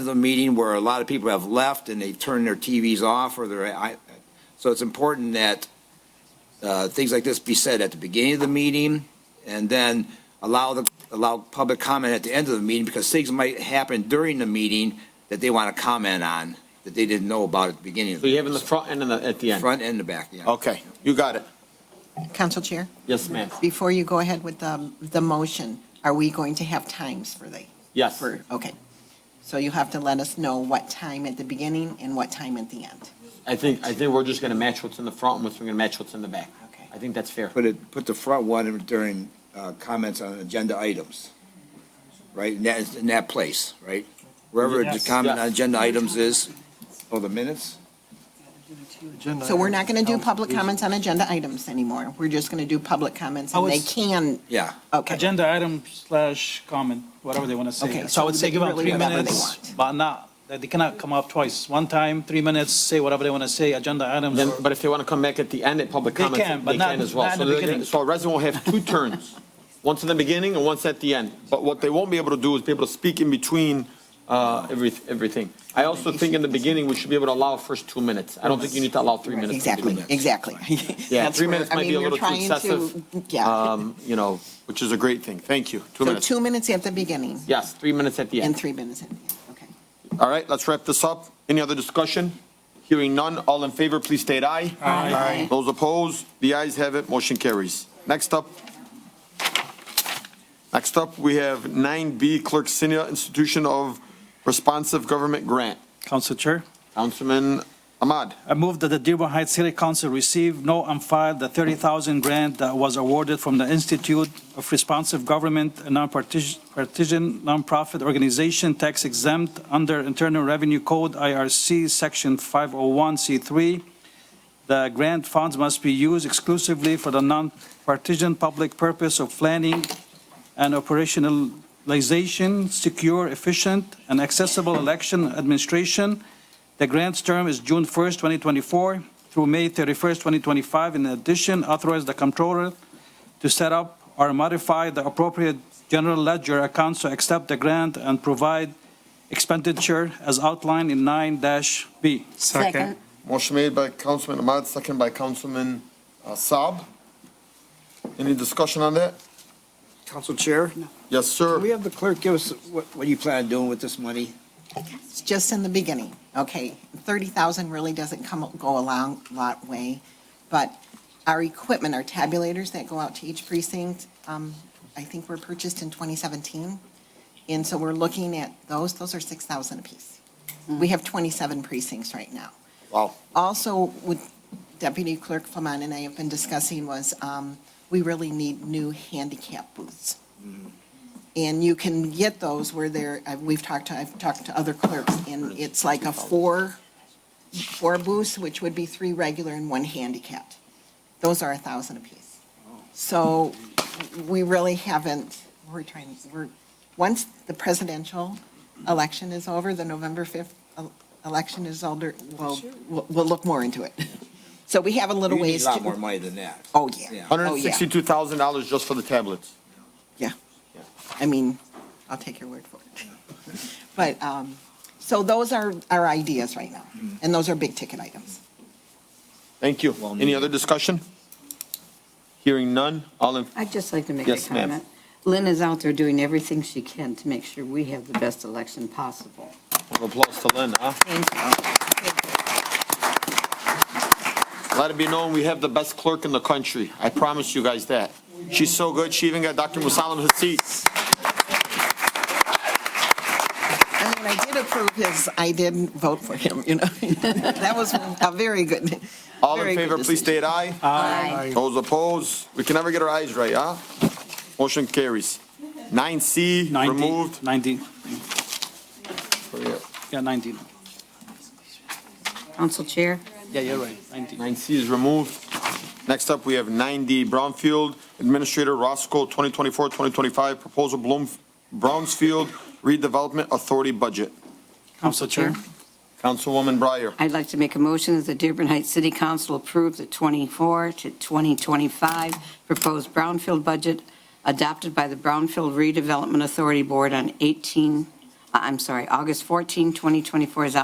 is a meeting where a lot of people have left and they've turned their TVs off or their, I, so it's important that uh, things like this be said at the beginning of the meeting and then allow the, allow public comment at the end of the meeting because things might happen during the meeting that they want to comment on that they didn't know about at the beginning. of So you have in the front and in the, at the end? Front and the back, yeah. Okay, you got it. Council Chair, Yes, ma'am. before you go ahead with the, the motion, are we going to have times for the, Yes. for, okay. So you have to let us know what time at the beginning and what time at the end. I think, I think we're just gonna match what's in the front and we're gonna match what's in the back. Okay. I think that's fair. Put it, put the front one during uh, comments on agenda items, right? In that, in that place, right? Wherever the Yes. comment on Yes. agenda items is, or the minutes? So we're not Um, going to do public comments on agenda items anymore. We're just going to do public comments and I they was- can, Yeah. okay. Agenda item slash comment, whatever they want to say. Okay, So I would so say give them really three whatever they minutes, want. but not, that they cannot come up twice. One time, three minutes, say whatever they want to say, agenda items. Then, but if they wanna come back at the end at public They comments, can, but they not- can as not well. So in the they're gonna- beginning. So a resident will have two turns, once in the beginning and once at the end. But what they won't be able to do is be able to speak in between, uh, every, everything. I also think in the beginning, we should be able to allow first two minutes. I don't think you need to allow three minutes. to begin. Exactly, exactly. Yeah, That's three where- minutes I might mean, be a you're little too trying to- excessive. Yeah, Um, you know, which is a great thing. Thank you. Two so minutes. two minutes at the beginning Yes, three minutes at the and end. three minutes at the end, okay. All right, let's wrap this up. Any other discussion? Hearing none, all in favor, please state aye. Aye. Those opposed, the ayes have it, motion carries. Next up, next up, we have 9B Clerk Senior Institution of Responsive Government Grant. Council Chair, Councilman Ahmad. I move that the Dearborn Heights City Council receive, know, and file the 30,000 grant that was awarded from the Institute of Responsive Government, a non-partisan, nonprofit organization tax exempt under Internal Revenue Code, IRC, Section 501C3. The grant funds must be used exclusively for the non-partisan public purpose of planning and operationalization, secure, efficient, and accessible election administration, the grant's term is June 1st, 2024 through May 31st, 2025. In addition, authorize the comptroller to set up or modify the appropriate general ledger accounts to accept the grant and provide expenditure as outlined in 9-B. Second. Motion made by Councilman Ahmad, second by Councilman uh, Saab. Any discussion on that? Council Chair? Yes, Can we sir. have the clerk give us what, what you plan on doing with this money? It's just in the beginning, okay? Thirty thousand really doesn't come, go a long, lot way, but our equipment, our tabulators that go out to each precinct, um, I think were purchased in twenty seventeen. And so we're looking at those, those are six thousand apiece. We have twenty-seven precincts right now. Wow. Also, with Deputy Clerk Flamon and I have been discussing was, um, we really need new handicap booths. Mm-hmm. And you can get those where they're, I- we've talked to, I've talked to other clerks, and it's like a four, four booths, which would be three regular and one handicapped. Those are a thousand apiece. Oh. So we really haven't, we're trying, we're, once the presidential election is over, the November 5th el- election is older, we'll, we'll we'll look more into it. So we have a You little need ways a to. lot more money than that. Oh, yeah. Yeah. Oh, yeah. $162,000 just for the tablets. I mean, I'll take your word for it. But, um, so those are our ideas right now, and those are big ticket items. Thank you. Well Any needed. other discussion? Hearing none, all in, I'd just like to make a Yes, ma'am. comment. Lynn is out there doing everything she can to make sure we have the best election possible. applause to Lynn, huh? Thank Let it be known, we have the best clerk in the country. I promise you guys that. She's so good, she even got Dr. Musalam his seat. I mean, I did approve his, I did vote for him, you know? That was a very good. All very in good favor, please decision. state aye. Aye. Those opposed, we can never get our eyes right, huh? Motion carries. 9C, 19, removed. 19, yeah, 19. Council Chair, Yeah, you're right, 19. 9C is removed. Next up, we have 9D Brownfield Administrator Roscoe 2024-2025 Proposal Bloom, Brownsfield Redevelopment Authority Budget. Council Chair. Councilwoman Breyer. I'd like to make a motion that the Dearborn Heights City Council approve the 24 to 2025 proposed Brownfield budget adopted by the Brownfield Redevelopment Authority Board on 18, I- I'm sorry, August 14, 2024 is out.